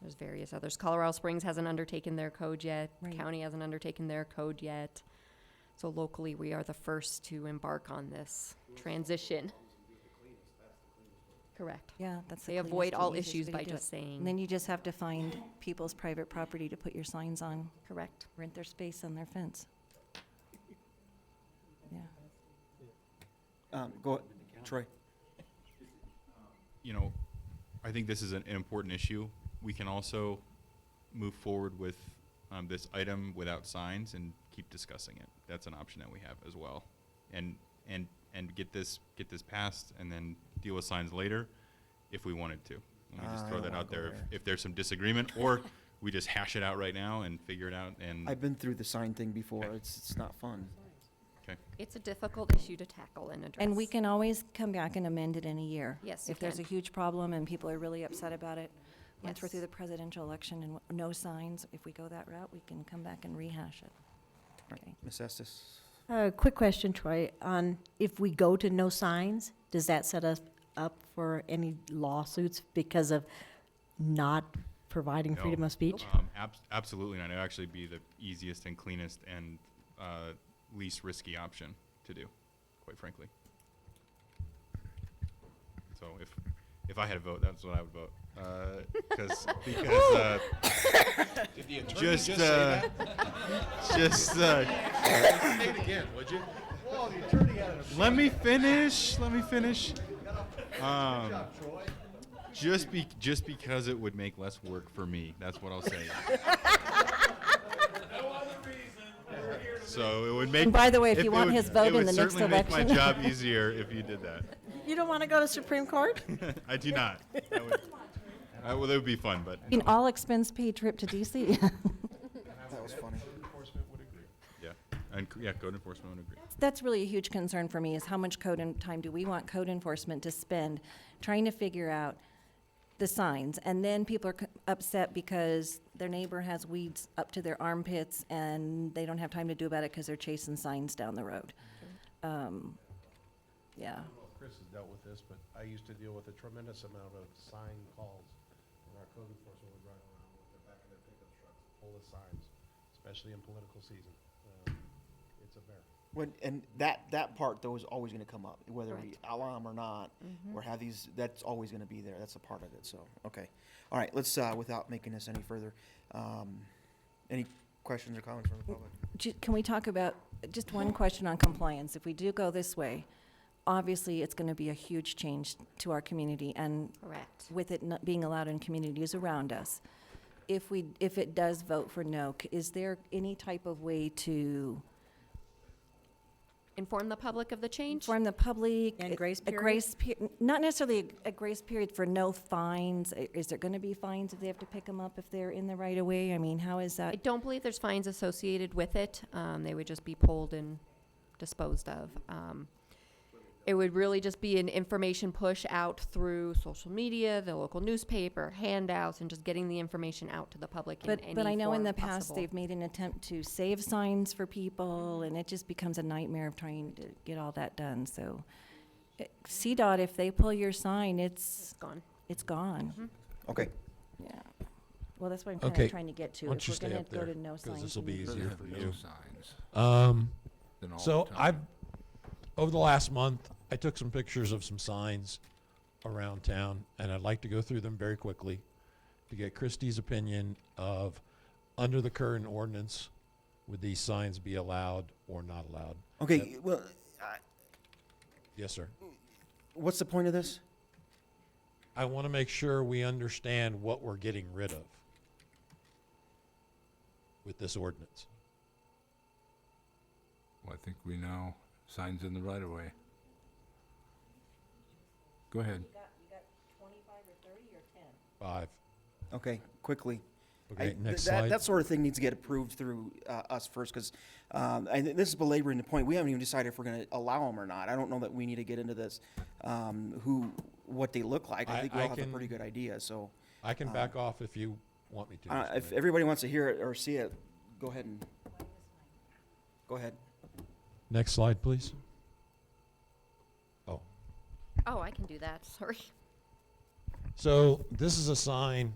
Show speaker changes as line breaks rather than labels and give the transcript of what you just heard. There's various others. Colorado Springs hasn't undertaken their code yet.
Right.
County hasn't undertaken their code yet. So locally, we are the first to embark on this transition. Correct.
Yeah, that's
They
the cleanest
avoid
and
all
easiest
issues
way to
by
do it.
just saying,
And then you just have to find people's private property to put your signs on,
correct.
rent their space on their fence. Yeah,
Um, go, Troy.
you know, I think this is an, an important issue. We can also move forward with um, this item without signs and keep discussing it. That's an option that we have as well, and and and get this get this passed and then deal with signs later, if we wanted to. Let me
Ah,
just
I
throw
don't
that
wanna
out
go
there. If,
there.
if there's some disagreement, or we just hash it out right now and figure it out. And
I've been through the sign thing before. It's, it's not fun.
okay,
It's a difficult issue to tackle and address.
and we can always come back and amend it in a year.
Yes, you
If there's a
can.
huge problem and people are really upset about it, once we're
Yes.
through the presidential election and w- no signs, if we go that route, we can come back and rehash it. Okay.
Ms. Estes,
A quick question, Troy, on if we go to no signs, does that set us up for any lawsuits because of not providing
No.
freedom of speech?
um, abs- absolutely, and it would actually be the easiest and cleanest and uh, least risky option to do, quite frankly. So if if I had a vote, that's what I would vote. Uh, cause, because uh, just uh, just uh, let me finish. Let me finish. Um, just be just because it would make less work for me. That's what I'll say. no other reason. So it would make.
And by the way, if
it-
you
it
want
would-
his vote in the next
it would certainly make my
election.
job easier if you did that.
You don't want to go to Supreme Court?
I do not. That would, I, well, that would be fun, but
An all-expense-paid trip to DC.
that was funny.
yeah, and c- yeah, code enforcement would agree.
That's really a huge concern for me, is how much code and time do we want code enforcement to spend trying to figure out the signs? And then people are c- upset because their neighbor has weeds up to their armpits and they don't have time to do about it because they're chasing signs down the road. Um, Yeah,
Chris has dealt with this, but I used to deal with a tremendous amount of sign calls. When our code enforcement would ride around with the back of their pickup trucks, full of signs, especially in political season. Um, It's a bear.
When, and that, that part though is always gonna come up, whether we
Correct.
allow 'em or not, or have these, that's always gonna be there. That's a part of it, so, okay. All right, let's, uh, without making this any further, um, any questions or comments from the public?
Ju- Can we talk about, just one question on compliance. If we do go this way, obviously, it's going to be a huge change to our community and
Correct.
with it not being allowed in communities around us. If we, if it does vote for no, c- is there any type of way to
Inform the public of the change.
inform the public?
And
a-
grace
A grace, pe- not necessarily a- a grace period for no fines. I- Is there going to be fines if they have to pick them up if they're in the right of way? I mean, how is
I
that?
don't believe there's fines associated with it. Um, they would just be pulled and disposed of. Um, it would really just be an information push out through social media, the local newspaper, handouts, and just getting the information out to the public in
But,
any
but I know in
form
the past,
possible.
they've made an attempt to save signs for people, and it just becomes a nightmare of trying to get all that done, so. eh, CDOT, if they pull your sign, it's,
It's gone. Mm-hmm.
it's gone.
Okay,
Yeah. Well, that's what I'm kind
Okay.
of trying to get to.
Why don't
if
you
we're
stay
gonna
up
go to
there,
no
'cause
signs,
this'll
we
be
need-
easier
Doesn't
for
have no
you.
signs,
Um,
then all
so
the time.
I've, over the last month, I took some pictures of some signs around town, and I'd like to go through them very quickly to get Christie's opinion of, under the current ordinance, would these signs be allowed or not allowed?
okay, well,
Yes, sir.
what's the point of this?
I want to make sure we understand what we're getting rid of with this ordinance.
Well, I think we know signs in the right of way. Go ahead.
Five.
Okay, quickly. I-
Okay,
th-
next
that-
slide.
That sort of thing needs to get approved through uh, us first, because, and th- this is belaboring the point, we haven't even decided if we're going to allow them or not. I don't know that we need to get into this, um, who, what they look like. I
I-
think we all
I
have a pretty
can-
good idea, so.
I
Uh,
can back off if you want me to.
uh,
Mr.
If
Mayor.
everybody wants to hear it or see it, go ahead and, go ahead.
Next slide, please. Oh,
Oh, I can do that. Sorry.
so this is a sign